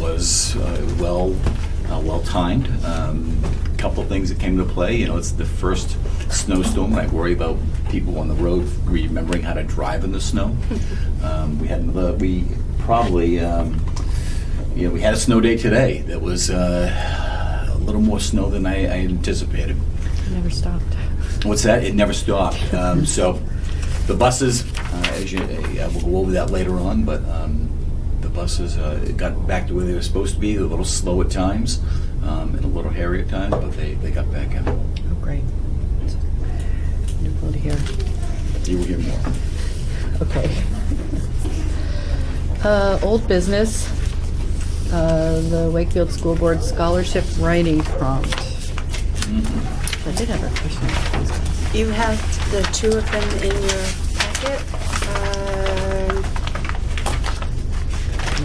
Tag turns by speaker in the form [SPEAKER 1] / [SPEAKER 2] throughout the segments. [SPEAKER 1] was uh, well, uh, well-timed. A Couple things that came into play, you know, it's the first snowstorm, and I worry about people on the road remembering how to drive in the snow. Um, We had, another- we probably, um, you know, we had a snow day today that was uh, a little more snow than I I anticipated.
[SPEAKER 2] Never stopped.
[SPEAKER 1] What's that? It never stopped. Um, so the buses, uh, as you, uh, we'll go over that later on, but um, the buses uh, got back to where they were supposed to be, a little slow at times um, and a little hairy at times, but they, they got back in.
[SPEAKER 2] Oh, great. Wonderful to hear.
[SPEAKER 1] You will hear more.
[SPEAKER 2] Okay. Uh, Old business, uh, the Wakefield School Board Scholarship Writing Prompt.
[SPEAKER 1] Mm-hmm.
[SPEAKER 2] I did have a question.
[SPEAKER 3] You have the two of them in your packet. Um,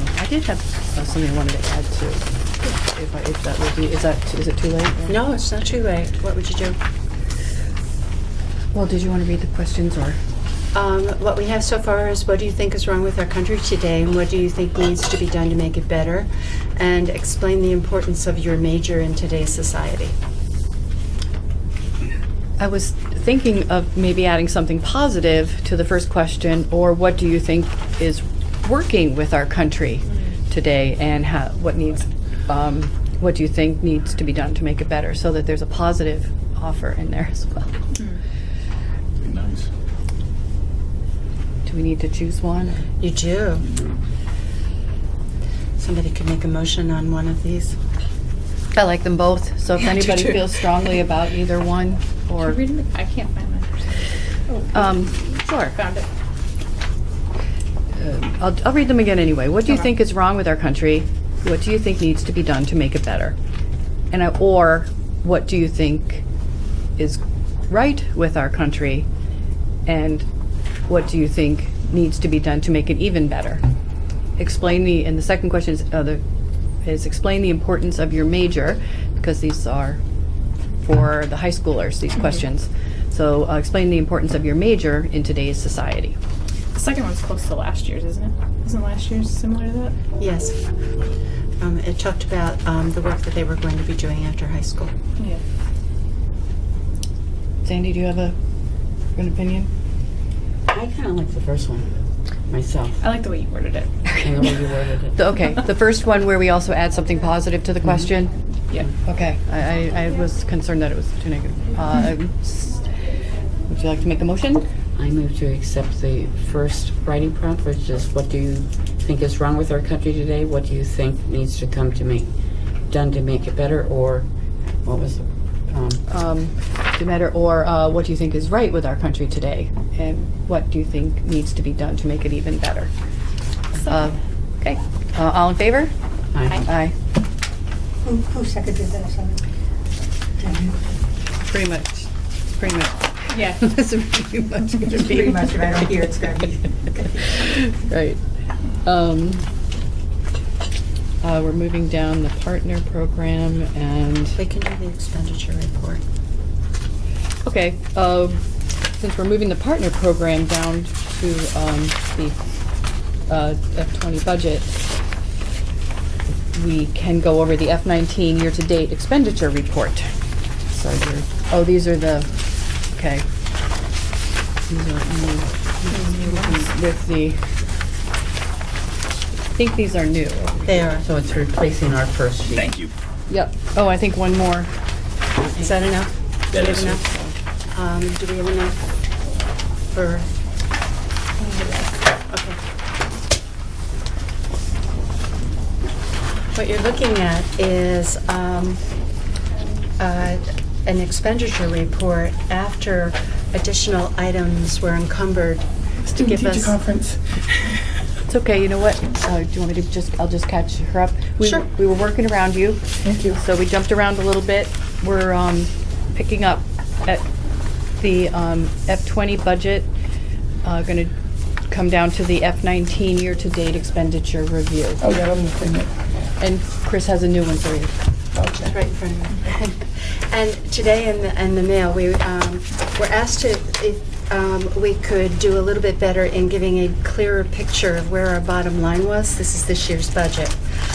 [SPEAKER 2] No, I did have uh, something I wanted to add to, if I- if that would be, is that, is it too late?
[SPEAKER 3] No, it's not too late. What would you do?
[SPEAKER 2] Well, did you want to read the questions or?
[SPEAKER 3] Um, What we have so far is what do you think is wrong with our country today and what do you think needs to be done to make it better? And explain the importance of your major in today's society.
[SPEAKER 2] I was thinking of maybe adding something positive to the first question, or what do you think is working with our country today, and how, what needs, um, what do you think needs to be done to make it better, so that there's a positive offer in there as well.
[SPEAKER 1] Be nice.
[SPEAKER 2] Do we need to choose one?
[SPEAKER 3] You do. Somebody could make a motion on one of these.
[SPEAKER 2] I like them both, so if
[SPEAKER 3] Yeah, I do
[SPEAKER 2] anybody
[SPEAKER 3] too.
[SPEAKER 2] feels strongly about either one, or,
[SPEAKER 4] Should we read them? I can't find mine. Oh,
[SPEAKER 2] um, sure.
[SPEAKER 4] Found it.
[SPEAKER 2] Uh, I'll, I'll read them again anyway. What do you
[SPEAKER 4] Okay.
[SPEAKER 2] think is wrong with our country? What do you think needs to be done to make it better? And I, or what do you think is right with our country? And what do you think needs to be done to make it even better? Explain the, and the second question is, uh, the, is explain the importance of your major, because these are for the high schoolers, these questions. So uh, explain the importance of your major in today's society.
[SPEAKER 4] The second one's close to last year's, isn't it? Isn't last year's similar to that?
[SPEAKER 3] Yes. Um, It talked about um, the work that they were going to be doing after high school.
[SPEAKER 4] Yeah.
[SPEAKER 2] Sandy, do you have a, an opinion?
[SPEAKER 5] I kind of like the first one myself.
[SPEAKER 4] I like the way you worded it.
[SPEAKER 5] and the way you worded it.
[SPEAKER 2] The- Okay, the first one where we also add something positive to the question?
[SPEAKER 4] Yeah.
[SPEAKER 2] Mm-hmm. Okay, I, I- I was concerned that it was too negative. Uh, s- Would you like to make a motion?
[SPEAKER 5] I move to accept the first writing prompt, which is what do you think is wrong with our country today? What do you think needs to come to make done to make it better? Or what was the um,
[SPEAKER 2] Um, To matter, or uh, what do you think is right with our country today? And what do you think needs to be done to make it even better? Uh, Okay, Uh, all in favor?
[SPEAKER 5] I,
[SPEAKER 2] Aye.
[SPEAKER 6] Who, who seconded that, sorry?
[SPEAKER 2] Pretty much, it's pretty much,
[SPEAKER 4] Yeah.
[SPEAKER 2] this is pretty much gonna be.
[SPEAKER 6] Pretty much, if I don't hear, it's gonna be.
[SPEAKER 2] Right. Um, uh, We're moving down the partner program and,
[SPEAKER 3] They can do the expenditure report.
[SPEAKER 2] okay, uh, since we're moving the partner program down to um, the uh, F-20 budget, we can go over the F-19 year-to-date expenditure report. So you're, oh, these are the, okay. These are only with the, I think these are new.
[SPEAKER 3] They are.
[SPEAKER 5] so it's replacing our first sheet.
[SPEAKER 1] Thank you.
[SPEAKER 2] Yep. Oh, I think one more. Is that enough?
[SPEAKER 1] That
[SPEAKER 3] Do we
[SPEAKER 1] is,
[SPEAKER 3] have enough? Um, do we have enough for? Okay. What you're looking at is, um, uh, an expenditure report after additional items were encumbered to give us.
[SPEAKER 2] It's okay, you know what? Uh, Do you want me to just, I'll just catch her up? We-
[SPEAKER 3] Sure.
[SPEAKER 2] We were working around you. Thank you. So we jumped around a little bit. We're um, picking up at the um, F-20 budget, going to come down to the F-19 year-to-date expenditure review.
[SPEAKER 7] Oh, yeah, I'm looking at,
[SPEAKER 2] And Chris has a new one for you.
[SPEAKER 3] It's right in front of me. And today in the, in the mail, we um, were asked to, if um, we could do a little bit better in giving a clearer picture of where our bottom line was. This is this year's budget.